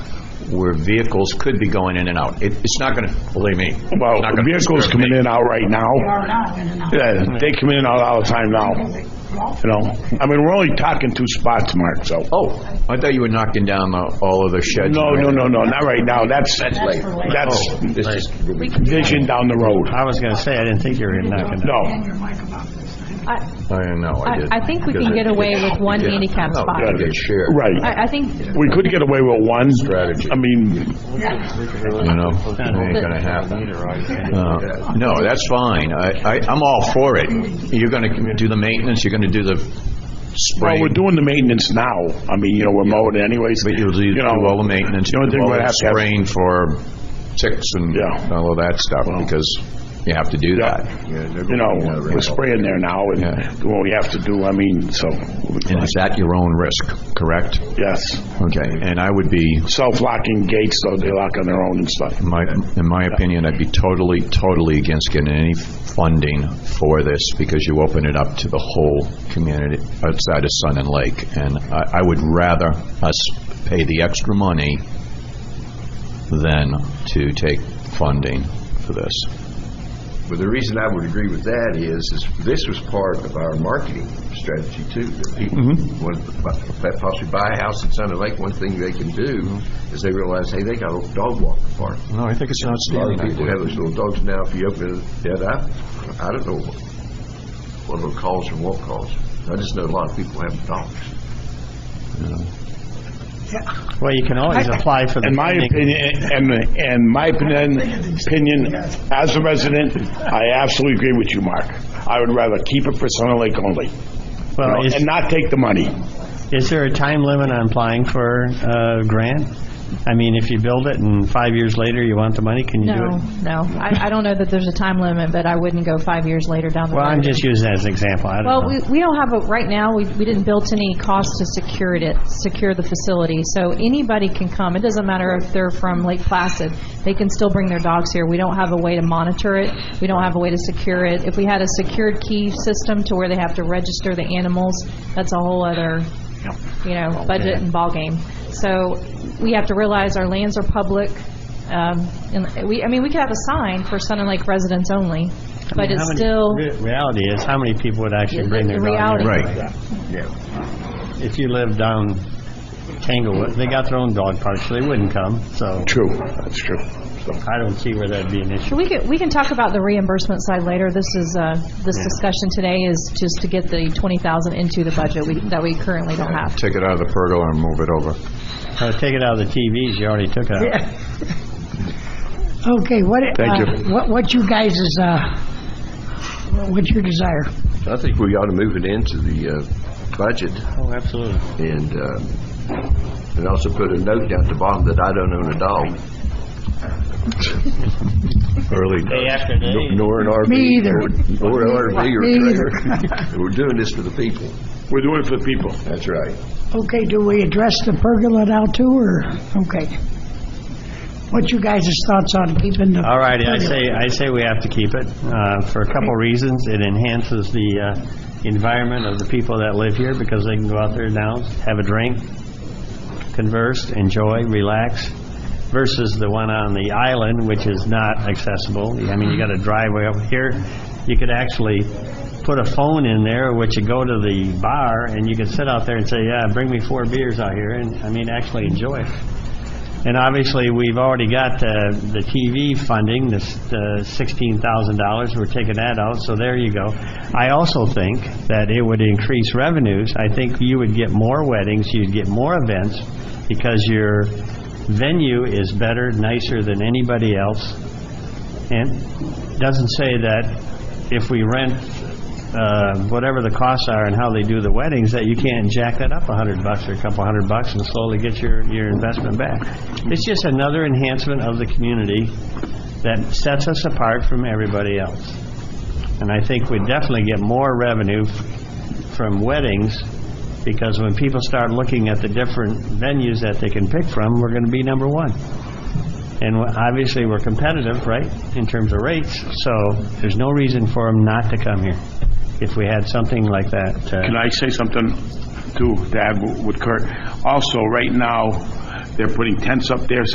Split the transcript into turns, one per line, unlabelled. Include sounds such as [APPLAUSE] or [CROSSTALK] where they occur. where vehicles could be going in and out. It- It's not going to, believe me. it's
Well,
not gonna
vehicles
disturb me.
coming in and out right
They
now.
are now in and out.
Yeah, they come in and out all the time now, you know? I mean, we're only talking two spots, Mark, so.
Oh, I thought you were knocking down the- all of the sheds.
No, no, no, no, not right now. That's,
later.
that's
Oh, this is really-
vision down the road.
I was going to say, I didn't think you were knocking down.
No.
And your mic about this thing.
I,
I don't know, I
I-
didn't.
I think we can
Because
get
it-
away with one
Yeah.
handicap
No,
spot.
gotta get shared,
Right.
I, I think,
We could get away with one.
Strategy.
I
You
mean,
know, it ain't gonna happen. Uh, No, that's fine, I, I, I'm all for it. You're gonna do the maintenance, you're gonna do the
well,
spray,
we're doing the maintenance now. I mean, you know, we're mowing it anyways.
but you'll do
you
do
know,
all the maintenance,
The
you'll
only
do
thing
all
we'll
the
have to have-
spraying for ticks and
Yeah.
all of that stuff, because you have to do
Yeah.
that.
You know, we're spraying there now
Yeah.
and what we have to do, I mean, so,
And it's at your own risk, correct?
yes.
Okay, and I would be,
Self-locking gates, though, they lock on their own and stuff.
my, in my opinion, I'd be totally, totally against getting any funding for this because you open it up to the whole community outside of Sun and Lake. And I, I would rather us pay the extra money than to take funding for this.
But the reason I would agree with that is, is this was part of our marketing strategy too. That people
Mm-hmm.
wanted to bu- possibly buy a house in Sunday Lake, one thing they can do
Mm-hmm.
is they realize, hey, they got a little dog walker park.
No, I think it's an
A lot
outstanding
of people
idea.
have those little dogs now, if you open it up, I don't know what little calls or won't calls. I just know a lot of people have dogs.
Well, you can always apply for the
In my
funding.
opinion, and, and my opinion, opinion, as a resident, I absolutely agree with you, Mark. I would rather keep it for Center Lake only, you know,
Well, is,
and not take the money.
is there a time limit on applying for a grant? I mean, if you build it and five years later you want the money, can you do
no,
it?
no. I, I don't know that there's a time limit, but I wouldn't go five years later down the road.
Well, I'm just using that as an example. I
Well,
don't
we,
know.
we don't have a, right now, we, we didn't build any cost to secure it, secure the facility. So anybody can come. It doesn't matter if they're from Lake Placid. They can still bring their dogs here. We don't have a way to monitor it. We don't have a way to secure it. If we had a secured key system to where they have to register the animals, that's a whole other, you know, budget and ballgame. So we have to realize our lands are public. Um, and we, I mean, we could have a sign for Sun and Lake residents only, but
How
it's
many-
still.
re- Reality is, how many people would actually
The-
bring their
the
dog? in?
reality.
If you live down Tanglewood, they got their own dog park, so they wouldn't come, so
True, that's true. So,
I don't see where that'd be an issue.
We can, we can talk about the reimbursement side later. This is, uh, this discussion today is just to get the 20,000 into the budget we- that we currently don't have.
Take it out of the pergola and move it over.
Uh, Take it out of the TVs, you already took it out.
Okay, what,
Thank
uh, what, what you guys is, uh, what's your desire?
I think we ought to move it into the uh, budget
Oh, absolutely.
and, uh, and also put a note down at the bottom that I don't own a dog.
Early
Day after day.
Nor an RV.
Me either.
Nor an RV or
Me either.
a trailer. [LAUGHS] We're doing this for the people.
We're doing it for the people.
That's right.
Okay, do we address the pergola now too, or, okay? What you guys' thoughts on keeping the?
All righty, I say, I say we have to keep it, uh, for a couple reasons. It enhances the, uh, environment of the people that live here, because they can go out there now, have a drink, converse, enjoy, relax, versus the one on the island, which is not accessible. I mean, you got a driveway over here, you could actually put a phone in there, which you go to the bar, and you could sit out there and say, yeah, bring me four beers out here, and, I mean, actually enjoy it. And obviously, we've already got uh, the TV funding, this uh, $16,000, we're taking that out, so there you go. I also think that it would increase revenues. I think you would get more weddings, you'd get more events, because your venue is better, nicer than anybody else. And it doesn't say that if we rent uh, whatever the costs are and how they do the weddings, that you can't jack that up a hundred bucks or a couple hundred bucks and slowly get your, your investment back. It's just another enhancement of the community that sets us apart from everybody else. And I think we definitely get more revenue f- from weddings, because when people start looking at the different venues that they can pick from, we're going to be number one. And we- obviously, we're competitive, right, in terms of rates, so there's no reason for them not to come here if we had something like that. uh,
Can I say something too, to add with Kurt? Also, right now, they're putting tents up there,